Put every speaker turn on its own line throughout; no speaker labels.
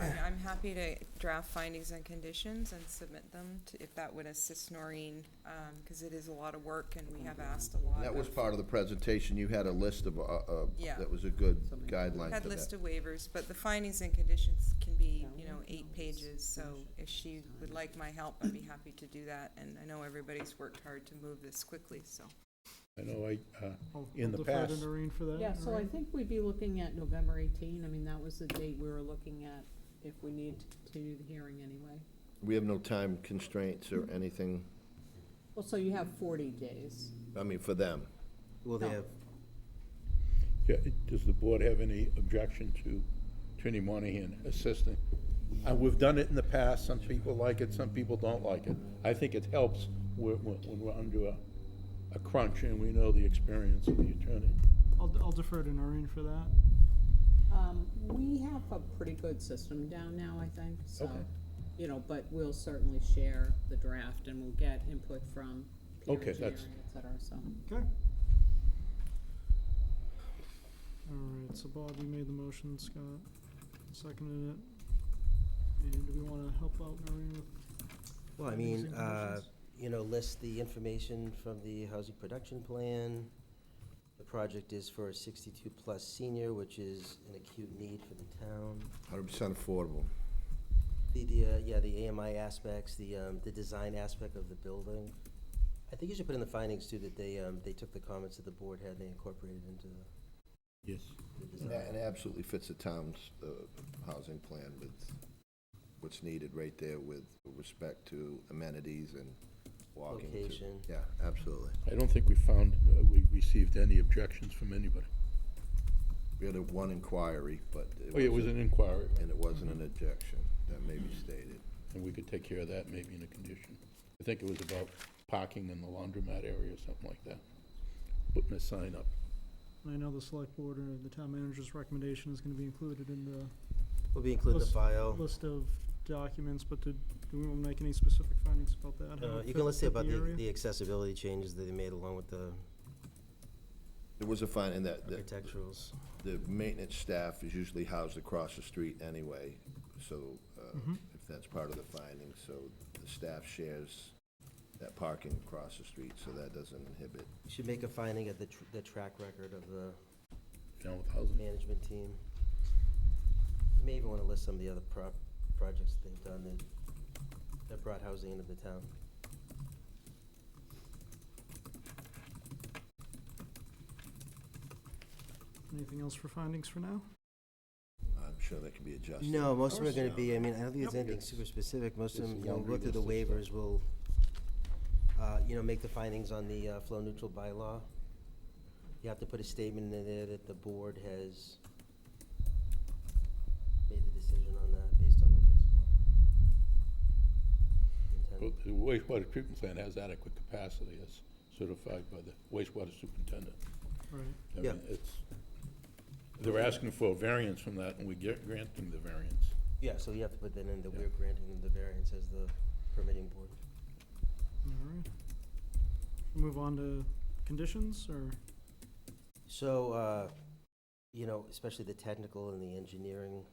I'm, I'm happy to draft findings and conditions and submit them to, if that would assist Noreen, um, cause it is a lot of work and we have asked a lot.
Mm-hmm. That was
of-
part of the presentation, you had a list of, uh, uh,
Yeah.
that was a good guideline
Had
for
list
that.
of waivers, but the findings and conditions can be, you know, eight pages, so if she would like my help, I'd be happy to do that. And I know everybody's worked hard to move this quickly, so.
I know I, uh,
I'll
in
I'll
the
defer to
past-
Noreen for that.
Yeah, so I
Noreen?
think we'd be looking at November eighteen, I mean, that was the date we were looking at if we need to continue the hearing anyway.
We have no time constraints or anything,
Well, so you have forty days.
I mean, for them.
Will they
No.
have,
yeah, does the board have any objection to Attorney Monahan assisting? Uh, we've done it in the past, some people like it, some people don't like it. I think it helps when, when when we're under a, a crunch and we know the experience of the attorney.
I'll, I'll defer to Noreen for that.
Um, we have a pretty good system down now, I think, so,
Okay.
you know, but we'll certainly share the draft and we'll get input from peer
Okay,
engineering,
that's-
et cetera, so.
Okay. All right, so Bob, you made the motion, Scott seconded it. And do we wanna help out Noreen with
well, I
findings
mean,
and
uh,
conditions?
you know, list the information from the housing production plan. The project is for a sixty-two plus senior, which is an acute need for the town.
Hundred percent affordable.
The, the, uh, yeah, the AMI aspects, the, um, the design aspect of the building. I think you should put in the findings too, that they, um, they took the comments that the board had, and they incorporated into the-
Yes.
the
And that-
design.
and it absolutely fits the town's, uh, housing plan with what's needed right there with respect to amenities and walking. to-
Location.
Yeah, absolutely.
I don't think we found, uh, we received any objections from anybody.
We had a one inquiry, but.
Oh, yeah, it was an inquiry, right,
And it wasn't an objection, that may be stated.
and we could take care of that maybe in a condition. I think it was about parking in the laundromat area or something like that, putting a sign up.
I know the select board or the town manager's recommendation is gonna be included in the
Will be included in the
List-
file.
list of documents, but did, do we wanna make any specific findings about that? how
Uh,
it
You can
fit-
list it
fit
about the,
area?
the accessibility changes that they made along with the
There was a fine, and that, that
architecturals.
the maintenance staff is usually housed across the street anyway, so, uh,
Mm-hmm.
if that's part of the finding, so the staff shares that parking across the street, so that doesn't inhibit.
You Should make a finding of the, tr- the track record of the
down with housing.
management team. You May even want to list some of the other prop, projects that they've done that, that brought housing into the town.
Anything else for findings for now?
I'm sure that can be adjusted.
No, most of them are
course.
going to be, I mean, I don't think there's
Yep.
anything super specific, most of
It's
them, you know,
laundry
go through the
list and
waivers, will, uh, you know, make the findings on the, uh, flow neutral bylaw. You have to put a statement in there that the board has made the decision on that based on the wastewater.
Well,
intent.
The wastewater treatment plant has adequate capacity as certified by the wastewater superintendent.
Right,
I
Yeah.
mean, it's, they're asking for a variance from that, and we get, grant them the variance.
Yeah, so you have to put that in, that
Yeah.
we're granting them the variance as the permitting board.
alright. Move on to conditions, or?
So, uh, you know, especially the technical and the engineering,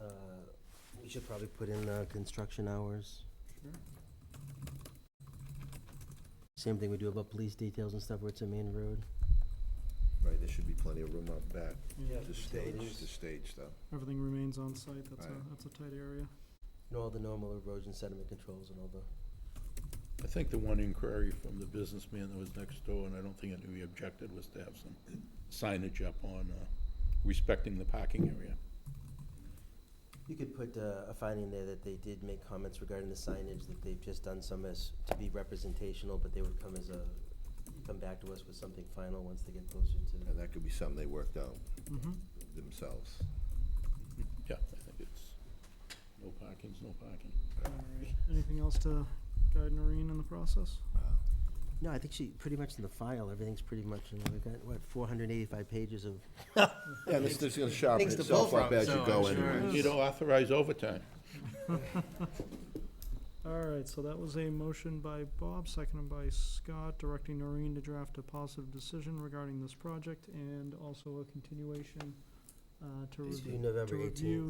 uh, we should probably put in the construction hours.
Sure.
Same thing we do about police details and stuff where it's a main road.
Right, there should be plenty of room out back
Yeah,
to stage, to stage though.
Everything remains on site, that's a,
Right.
that's a tight area.
And all the normal erosion sediment controls and all the
I think the one inquiry from the businessman that was next door, and I don't think anybody objected, was to have some signage up on, uh, respecting the parking area.
You could put uh, a finding there that they did make comments regarding the signage, that they've just done some as, to be representational, but they would come as a, come back to us with something final once they get closer
And
to.
that could be something they worked out
Mm-hmm,
themselves.
Yeah, I think it's, no parking's no parking.
alright. Anything else to guide Noreen in the process?
No, I think she, pretty much in the file, everything's pretty much, and we've got, what, four hundred and eighty-five pages of.
Yeah, and it's just gonna sharpen
Things to pull
itself up
from,
as you
so
go
I'm sure-
anyway.
You don't authorize overtime.
Alright, so that was a motion by Bob, seconded by Scott, directing Noreen to draft a positive decision regarding this project and also a continuation
uh, to
It's due
review,
November
to
18th.
review